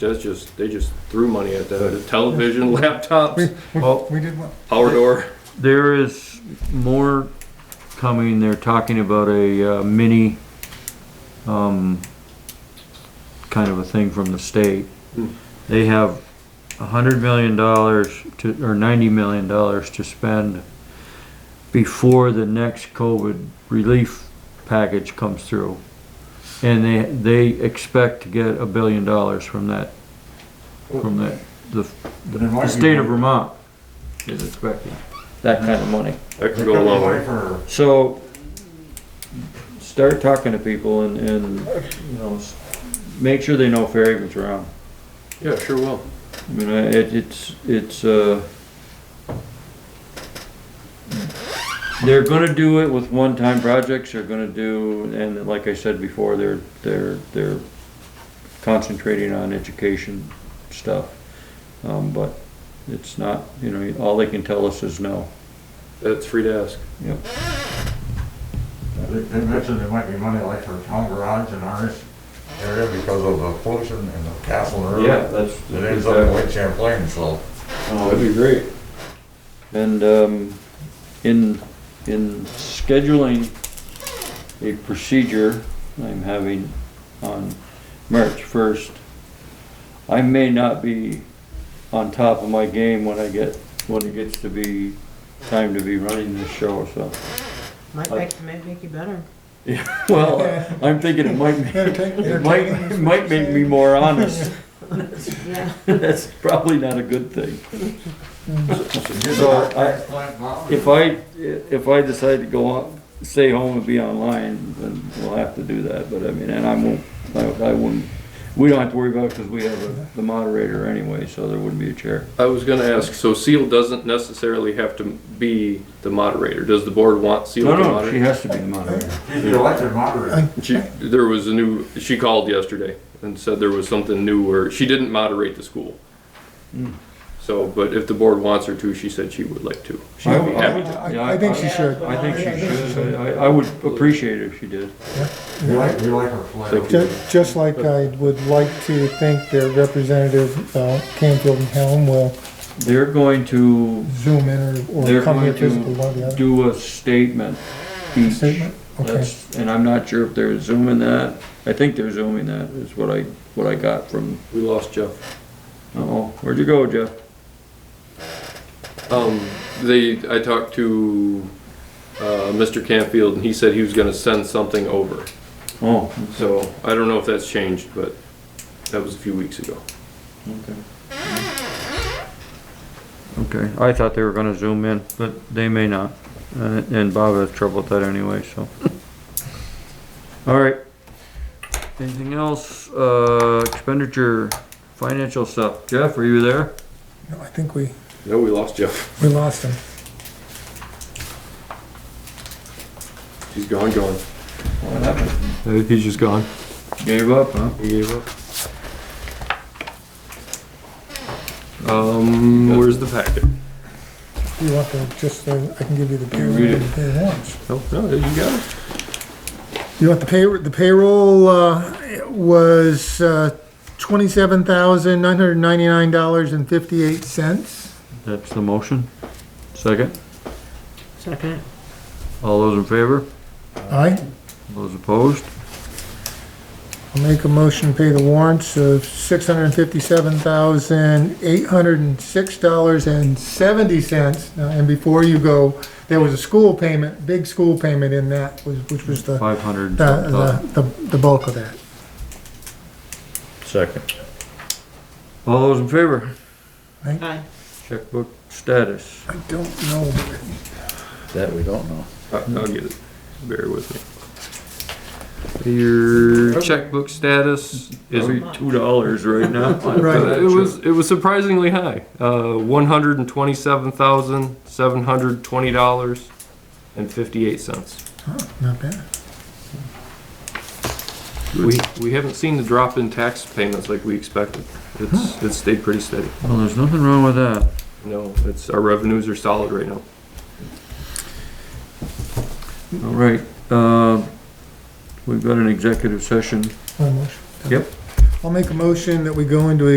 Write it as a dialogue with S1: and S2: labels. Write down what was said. S1: That's just, they just threw money at that. Television, laptops,
S2: Well,
S3: We did what?
S1: power door.
S2: there is more coming. They're talking about a uh, mini, um, kind of a thing from the state.
S1: Hmm.
S2: They have a hundred million dollars to, or ninety million dollars to spend before the next COVID relief package comes through. And they, they expect to get a billion dollars from that, from that, the,
S3: Then why
S2: the
S3: do
S2: state
S3: you-
S2: of Vermont is expecting that kind of money.
S1: That could go a long way.
S3: For
S2: So, start talking to people and, and, you know, s- make sure they know Fairhaven's around.
S1: Yeah, sure will.
S2: I mean, I- it, it's, it's, uh, they're gonna do it with one-time projects, they're gonna do, and like I said before, they're, they're, they're concentrating on education stuff. Um, but it's not, you know, all they can tell us is no.
S1: That's free to ask.
S2: Yep.
S3: They they mentioned there might be money like for town garage and ours area because of the pollution and the castle road.
S2: that's.
S3: It ends up in Lake Champlain, so.
S2: Oh, that'd be great. And, um, in, in scheduling a procedure I'm having on March first, I may not be on top of my game when I get, when it gets to be time to be running this show, so.
S4: Might
S2: Like-
S4: make, might make you better.
S2: Well, I'm thinking it might, make- it might, it might make me more honest.
S4: Yeah.
S2: That's probably not a good thing.
S3: So
S2: I- If I, if I decide to go on, stay home and be online, then we'll have to do that, but I mean, and I won't, I, I wouldn't, we don't have to worry about it because we have a- the moderator anyway, so there wouldn't be a chair.
S1: I was gonna ask, so Seal doesn't necessarily have to be the moderator. Does the board want Seal
S2: No,
S1: to
S2: no, she
S1: moderate?
S2: has to be the moderator.
S3: He's the elected moderator.
S1: She, there was a new, she called yesterday and said there was something new where she didn't moderate the school.
S2: Hmm.
S1: So, but if the board wants her to, she said she would like to. She
S2: I-
S1: would be happy to.
S2: I-
S5: I, I think she should.
S2: I think she should, I, I would appreciate it if she did.
S3: We like, we like her flair.
S1: Thank you.
S5: Ju- Just like I would like to think their representative, uh, Canfield and Helm will
S2: They're going to
S5: zoom in or,
S2: They're
S5: or come
S2: going
S5: here
S2: to
S5: physically, one or the other.
S2: do a statement each.
S5: Statement? Okay,
S2: That's, and I'm not sure if they're zooming that, I think they're zooming that, is what I, what I got from,
S1: We lost Jeff.
S2: uh-oh, where'd you go, Jeff?
S1: Um, they, I talked to, uh, Mr. Campfield and he said he was gonna send something over.
S2: Oh,
S1: So I don't know if that's changed, but that was a few weeks ago.
S2: Okay. Okay, I thought they were gonna zoom in, but they may not, and and Bob has trouble with that anyway, so. All right. Anything else, uh, expenditure, financial stuff, Jeff, are you there?
S5: No, I think we,
S1: No, we lost Jeff.
S5: we lost him.
S1: He's gone, gone.
S2: He's just gone. Gave up, huh?
S1: He gave up. Um, where's the packet?
S5: You want the, just, the- I can give you the
S2: read
S5: payroll,
S2: it.
S5: the pay warrants.
S1: No, no, you got it.
S5: You want the pay, the payroll, uh, was, uh, twenty-seven thousand, nine hundred ninety-nine dollars and fifty-eight cents.
S2: That's the motion. Second,
S4: Second.
S2: all those in favor?
S5: Aye?
S2: Those opposed?
S5: I'll make a motion to pay the warrants of six hundred and fifty-seven thousand, eight hundred and six dollars and seventy cents. And before you go, there was a school payment, big school payment in that, was- which was the,
S2: Five hundred.
S5: uh, the, the, the bulk of that.
S2: Second. All those in favor?
S4: Aye.
S2: Checkbook status.
S5: I don't know,
S6: That we don't know.
S1: I- Uh, I'll get it. Bear with me. Your checkbook status is.
S2: Probably two dollars right now.
S5: Right.
S1: It was, it was surprisingly high, uh, one hundred and twenty-seven thousand, seven hundred twenty dollars and fifty-eight cents.
S5: not bad.
S1: We, we haven't seen the drop in tax payments like we expected. It's, it's stayed pretty steady.
S2: Well, there's nothing wrong with that.
S1: No, it's, our revenues are solid right now.
S2: All right, uh, we've got an executive session.
S5: One motion.
S2: Yep.
S5: I'll make a motion that we go into